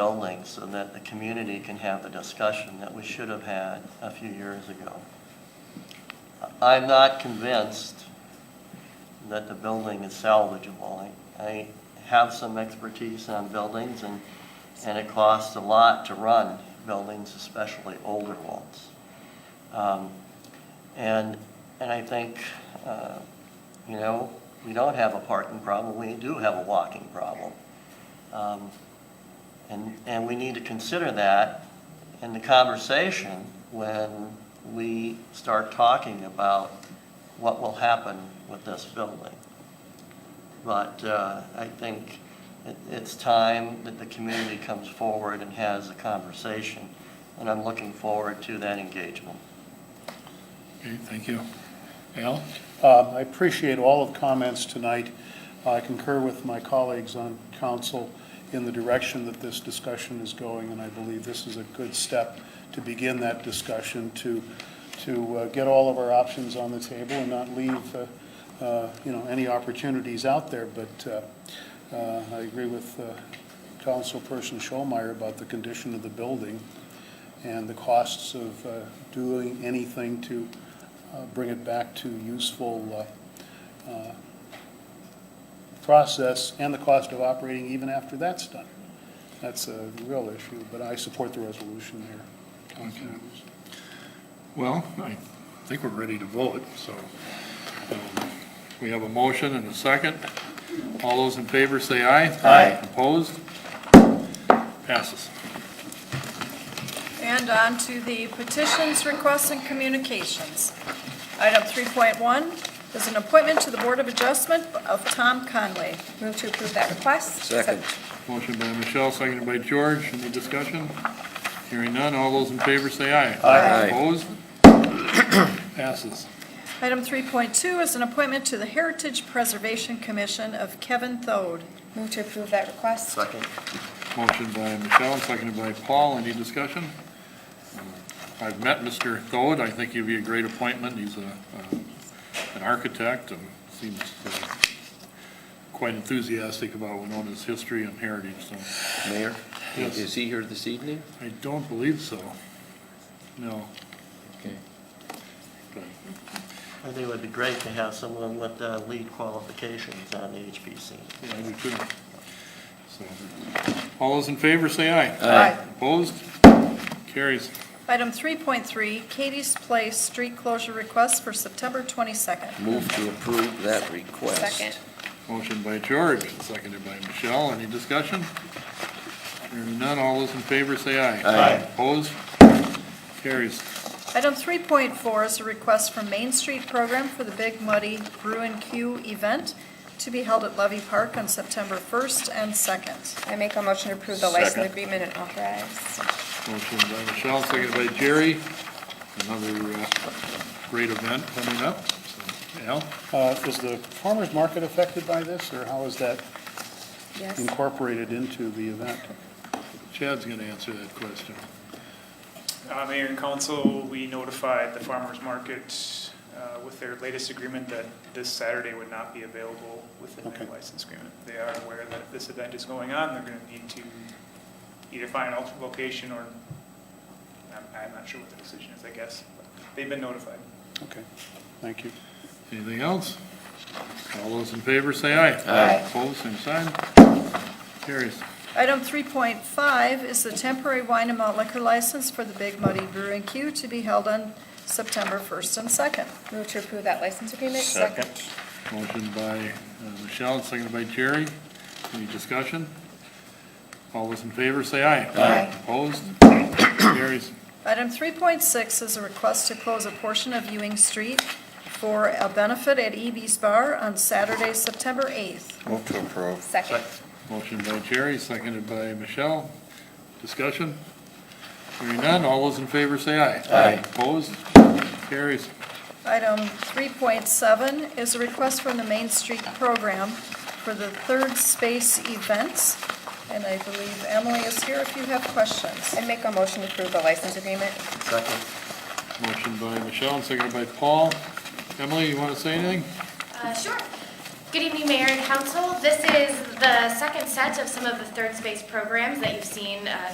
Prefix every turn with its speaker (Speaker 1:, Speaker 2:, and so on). Speaker 1: building so that the community can have the discussion that we should have had a few years ago. I'm not convinced that the building is salvageable. I, I have some expertise on buildings and, and it costs a lot to run buildings, especially older ones. Um, And, and I think, uh, you know, we don't have a parking problem, we do have a walking problem. Um, and, and we need to consider that in the conversation when we start talking about what will happen with this building. But uh, I think it- it's time that the community comes forward and has a conversation, and I'm looking forward to that engagement.
Speaker 2: Okay, thank you. Al?
Speaker 3: Um, I appreciate all of the comments tonight. I concur with my colleagues on council in the direction that this discussion is going, and I believe this is a good step to begin that discussion, to, to uh, get all of our options on the table and not leave, uh, uh, you know, any opportunities out there. But uh, uh, I agree with uh, Councilperson Scholmeyer about the condition of the building and the costs of uh, doing anything to uh, bring it back to useful uh, uh, process and the cost of operating even after that's done. That's a real issue, but I support the resolution here. Council
Speaker 2: Okay.
Speaker 3: members.
Speaker 2: Well, I think we're ready to vote, so um, we have a motion and a second. All those in favor say aye.
Speaker 1: Aye.
Speaker 2: Opposed? Passes.
Speaker 4: And on to the petitions, requests, and communications. Item 3.1 is an appointment to the Board of Adjustment of Tom Conway. Move to approve that request.
Speaker 5: Second.
Speaker 2: Motion by Michelle, seconded by George. Any discussion? Hearing none. All those in favor say aye.
Speaker 5: Aye.
Speaker 2: Opposed? Passes.
Speaker 4: Item 3.2 is an appointment to the Heritage Preservation Commission of Kevin Thode.
Speaker 6: Move to approve that request.
Speaker 1: Second.
Speaker 2: Motion by Michelle, seconded by Paul. Any discussion? Uh, I've met Mr. Thode. I think he'd be a great appointment. He's a, uh, an architect and seems uh, quite enthusiastic about Winona's history and heritage, so
Speaker 5: Mayor,
Speaker 2: Yes.
Speaker 5: is he here this evening?
Speaker 2: I don't believe so. No.
Speaker 5: Okay.
Speaker 1: I think it would be great to have someone with uh, lead qualifications on the HPC.
Speaker 2: Yeah, I do too. So, All those in favor, say aye.
Speaker 5: Aye.
Speaker 2: Opposed? Carries.
Speaker 4: Item 3.3, Katie's Place Street Closure Request for September 22nd.
Speaker 5: Move to approve that request.
Speaker 6: Second.
Speaker 2: Motion by George, seconded by Michelle. Any discussion? Hearing none, all those in favor say aye.
Speaker 5: Aye.
Speaker 2: Opposed? Carries.
Speaker 4: Item 3.4 is a request from Main Street Program for the Big Muddy Brew and Q event to be held at Levy Park on September 1st and 2nd.
Speaker 6: I make a motion to approve the
Speaker 2: Second.
Speaker 6: license agreement and authorize.
Speaker 2: Motion by Michelle, seconded by Jerry. Another uh, great event coming up. So, Al?
Speaker 3: Uh, Is the farmer's market affected by this, or how is that
Speaker 6: Yes.
Speaker 3: Mm. incorporated into the event?
Speaker 2: Chad's going to answer that question.
Speaker 7: Uh, Mayor and council, we notified the farmer's market uh, with their latest agreement that this Saturday would not be available within their
Speaker 3: Okay.
Speaker 7: license agreement. They are aware that if this event is going on, they're going to need to either find an alternate location or, I'm, I'm not sure what the decision is, I guess. but They've been notified.
Speaker 3: Okay, thank you.
Speaker 2: Anything else? All those in favor say aye.
Speaker 6: Aye.
Speaker 2: Opposed, same sign. Carries.
Speaker 4: Item 3.5 is the temporary wine and malt liquor license for the Big Muddy Brew and Q to be held on September 1st and 2nd.
Speaker 6: Move to approve that license agreement.
Speaker 2: Motion by uh, Michelle, seconded by Jerry. Any discussion? All those in favor, say aye.
Speaker 6: Aye.
Speaker 2: Opposed? Carries.
Speaker 4: Item 3.6 is a request to close a portion of Ewing Street for a benefit at EB's Bar on Saturday, September 8th.
Speaker 5: Move to approve.
Speaker 6: Second.
Speaker 2: Motion by Jerry, seconded by Michelle. Discussion? Hearing none, all those in favor, say aye.
Speaker 5: Aye.
Speaker 2: Opposed? Carries.
Speaker 4: Item 3.7 is a request from the Main Street Program for the Third Space Events, and I believe Emily is here if you have questions.
Speaker 6: I make a motion to approve the license agreement.
Speaker 1: Second.
Speaker 2: Motion by Michelle, seconded by Paul. Emily, you want to say anything?
Speaker 8: Uh, Sure. Good evening, Mayor and Council. This is the second set of some of the third space programs that you've seen uh,